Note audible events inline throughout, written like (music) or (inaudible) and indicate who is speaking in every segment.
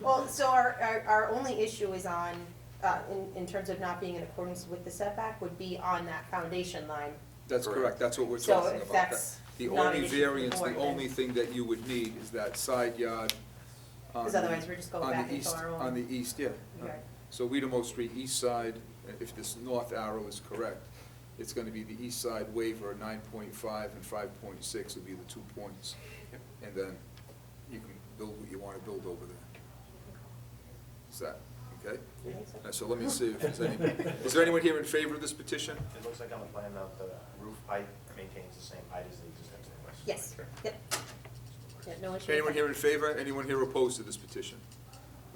Speaker 1: Well, so our, our, our only issue is on, uh, in, in terms of not being in accordance with the setback would be on that foundation line.
Speaker 2: That's
Speaker 3: Correct.
Speaker 2: correct, that's what we're
Speaker 1: So
Speaker 2: talking
Speaker 1: if
Speaker 2: about.
Speaker 1: that's
Speaker 2: That- The
Speaker 1: not an
Speaker 2: only
Speaker 1: issue for the
Speaker 2: variance, the
Speaker 1: board, then-
Speaker 2: only thing that you would need is that side yard. on
Speaker 1: 'Cause
Speaker 2: the-
Speaker 1: otherwise we're just going
Speaker 2: on the
Speaker 1: back into
Speaker 2: east-
Speaker 1: our own-
Speaker 2: On the east, yeah.
Speaker 1: Yard.
Speaker 2: So Weedamo Street east side, if this north arrow is correct, it's gonna be the east side waiver, nine point five and five point six would be the two points. And then you can build what you wanna build over there. Is that, okay?
Speaker 1: You think so?
Speaker 2: Uh, So let me see if there's any, is there anyone here in favor of this petition?
Speaker 4: It looks like on the plan that the roof height maintains the same height as the existing roof.
Speaker 1: Yes, yep. Yeah, no issue. with
Speaker 2: Anyone
Speaker 1: that.
Speaker 2: here in favor? Anyone here opposed to this petition?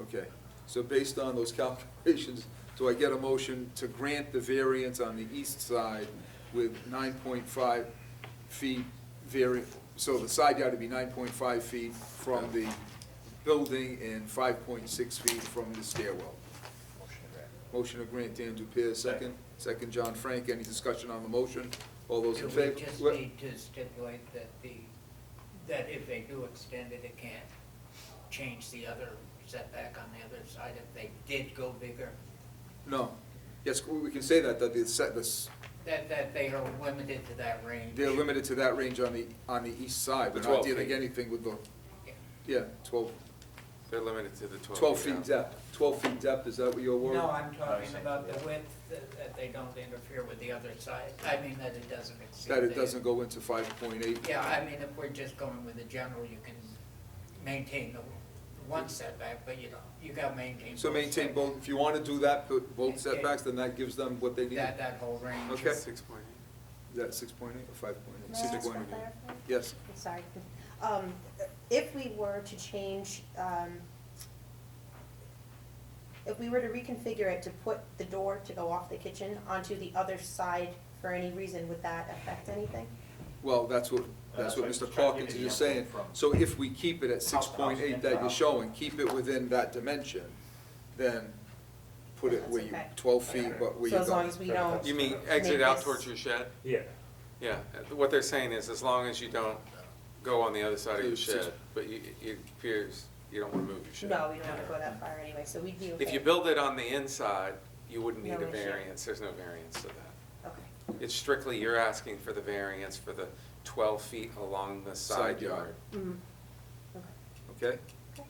Speaker 2: Okay, so based on those (laughs) calculations, do I get a motion to grant the variance on the east side with nine point five feet vari, so the side yard would be nine point five feet from the building and five point six feet from the stairwell?
Speaker 4: Motion to grant.
Speaker 2: Motion to grant Dan Dupierre, second. Second, John Frank. Any discussion on the motion? All those
Speaker 5: Do
Speaker 2: in
Speaker 5: we
Speaker 2: favor?
Speaker 5: just
Speaker 2: What-
Speaker 5: need to stipulate that the, that if they do extend it, it can't change the other setback on the other side if they did go bigger?
Speaker 2: No. Yes, we can say that, that the set, this,
Speaker 5: That, that they are limited to that range?
Speaker 2: They're limited to that range on the, on the east side,
Speaker 3: The
Speaker 2: we're not
Speaker 3: 12
Speaker 2: dealing
Speaker 3: feet.
Speaker 2: anything with the,
Speaker 5: Yeah.
Speaker 2: yeah, twelve,
Speaker 3: They're limited to the
Speaker 2: twelve
Speaker 3: twelve feet
Speaker 2: feet
Speaker 3: now.
Speaker 2: depth, twelve feet depth, is that what your word?
Speaker 5: No, I'm talking
Speaker 4: saying,
Speaker 5: about the
Speaker 4: yeah.
Speaker 5: width, that, that they don't interfere with the other side. I mean, that it doesn't exceed.
Speaker 2: That it
Speaker 5: the-
Speaker 2: doesn't go into five point eight?
Speaker 5: Yeah, I mean, if we're just going with the general, you can maintain the one setback, but you don't, you gotta maintain.
Speaker 2: So
Speaker 5: both
Speaker 2: maintain
Speaker 5: setbacks.
Speaker 2: both, if you wanna do that, put both
Speaker 5: Yeah.
Speaker 2: setbacks, then that gives them what they need,
Speaker 5: That, that whole range.
Speaker 2: Okay.
Speaker 3: Six point eight.
Speaker 2: is that six point eight or five point eight?
Speaker 1: May I
Speaker 2: Six
Speaker 1: ask for
Speaker 2: point eight.
Speaker 1: clarification?
Speaker 2: Yes,
Speaker 1: I'm sorry. Um, if we were to change, um, if we were to reconfigure it to put the door to go off the kitchen onto the other side for any reason, would that affect anything?
Speaker 2: well, that's what, that's
Speaker 4: that's
Speaker 2: what
Speaker 4: what
Speaker 2: Mr.
Speaker 4: I'm trying to
Speaker 2: Hawkins
Speaker 4: give you
Speaker 2: is
Speaker 4: the
Speaker 2: saying,
Speaker 4: example from-
Speaker 2: so if we keep it at six
Speaker 4: House to house,
Speaker 2: point eight
Speaker 4: in
Speaker 2: that
Speaker 4: to
Speaker 2: you're
Speaker 4: house.
Speaker 2: showing, keep it within that dimension, then put it
Speaker 1: That's
Speaker 2: where you,
Speaker 1: okay.
Speaker 2: twelve feet, but where
Speaker 1: So
Speaker 2: you go.
Speaker 1: as long as we don't.
Speaker 3: You mean
Speaker 1: Make
Speaker 3: exit out
Speaker 1: this-
Speaker 3: towards your shed?
Speaker 6: Yeah,
Speaker 3: Yeah, what they're saying is as long as you don't go on the other side of your
Speaker 2: It's just-
Speaker 3: shed, but you, it appears you don't wanna move your shed.
Speaker 1: No, we don't have to go that far anyway, so we'd be okay.
Speaker 3: If you build it on the inside, you wouldn't need
Speaker 1: No
Speaker 3: a
Speaker 1: issue.
Speaker 3: variance, there's no variance to that.
Speaker 1: Okay.
Speaker 3: It's strictly, you're asking for the variance for the twelve feet along the
Speaker 2: Side
Speaker 3: side
Speaker 2: yard.
Speaker 3: yard.
Speaker 1: Mhm. Okay.
Speaker 2: Okay,
Speaker 1: Okay.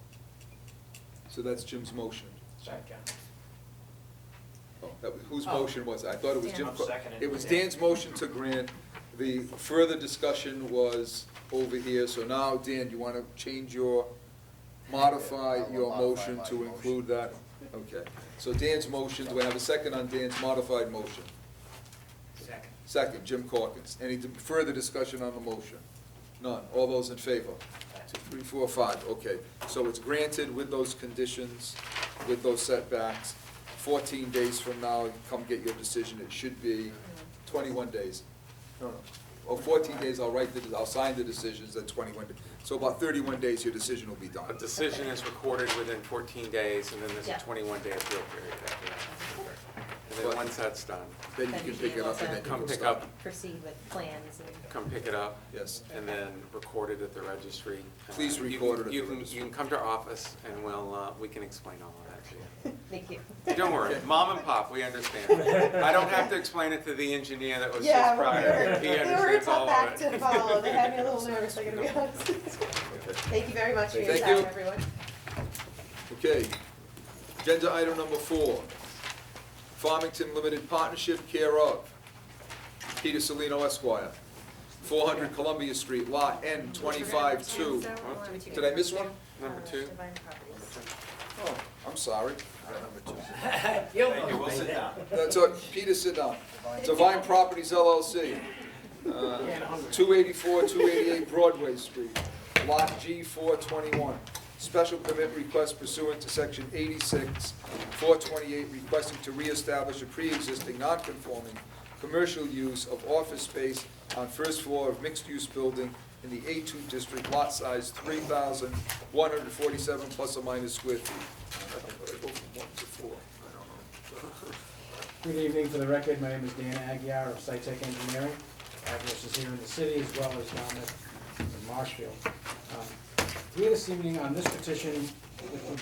Speaker 2: so that's Jim's motion.
Speaker 5: Sorry, John.
Speaker 2: Oh, that was- Whose
Speaker 5: Oh.
Speaker 2: motion was it? I thought it was
Speaker 1: Dan.
Speaker 2: Jim.
Speaker 4: I'll second it.
Speaker 2: It was Dan's motion to grant. The further discussion was over here, so now, Dan, you want to change your,
Speaker 4: Yeah, I
Speaker 2: modify
Speaker 4: will
Speaker 2: your
Speaker 4: modify
Speaker 2: motion
Speaker 4: my
Speaker 2: to
Speaker 4: motion.
Speaker 2: include that? Okay, so Dan's motion, do I have a second on Dan's modified motion?
Speaker 5: Second.
Speaker 2: Second, Jim Corkins. Any d- further discussion on the motion? None. All those in favor? Two, three, four, five, okay. So it's granted with those conditions, with those setbacks. Fourteen days from now, come get your decision. It should be twenty-one days. No, no. Oh, fourteen days, I'll write the, I'll sign the decisions at twenty-one. da- So about thirty-one days, your decision will be
Speaker 3: A
Speaker 2: done.
Speaker 3: decision is recorded within fourteen days, and then there's a
Speaker 1: Yeah.
Speaker 3: twenty-one day appeal period after that. And
Speaker 2: But-
Speaker 3: then once that's done,
Speaker 2: Then you can pick it up and then you
Speaker 3: Come
Speaker 2: can
Speaker 3: pick
Speaker 2: start.
Speaker 3: up.
Speaker 1: Proceed with plans and.
Speaker 3: come pick it up.
Speaker 2: Yes.
Speaker 3: And then record it at the registry.
Speaker 2: Please
Speaker 3: Uh, you can-
Speaker 2: record it at
Speaker 3: you
Speaker 2: the
Speaker 3: can-
Speaker 2: registry.
Speaker 3: You can come to our office, and we'll, uh, we can explain all of that to you.
Speaker 1: Thank you.
Speaker 3: (laughs) Don't worry, mom and pop, we understand. I don't have to explain it to the engineer that was
Speaker 1: Yeah,
Speaker 3: just
Speaker 1: we
Speaker 3: prior.
Speaker 1: were,
Speaker 3: He
Speaker 1: they were a
Speaker 3: understands
Speaker 1: tough
Speaker 3: all
Speaker 1: act
Speaker 3: of
Speaker 1: to
Speaker 3: it.
Speaker 1: follow, they had me a little
Speaker 3: (laughs)
Speaker 1: nervous, I gotta be honest. (laughs) Thank you very much for your
Speaker 2: Thank
Speaker 1: time,
Speaker 2: you.
Speaker 1: everyone.
Speaker 2: Okay. Agenda item number four, Farmington Limited Partnership care of Peter Salino Esquire, 400 Columbia Street, Lot N 25-2. Did I miss one?
Speaker 1: Uh,
Speaker 3: Number two.
Speaker 2: Oh, I'm sorry. Number two.
Speaker 5: You'll
Speaker 4: Thank you,
Speaker 5: know.
Speaker 4: we'll sit down.
Speaker 2: That's all, Peter, sit down. Divine Properties LLC, uh, 284, 288 Broadway Street, Lot G 421. Special permit request pursuant to Section 86, 428, requesting to reestablish a pre-existing non-conforming commercial use of office space on first floor of mixed-use building in the A2 district, lot size 3,147 plus or minus square feet. Go from one to four, I don't know.
Speaker 7: Good evening, for the record, my name is Dan Aguirre of SciTech Engineering. Address is here in the city as well as down at in Marshfield. Um, Here this evening on this petition, with the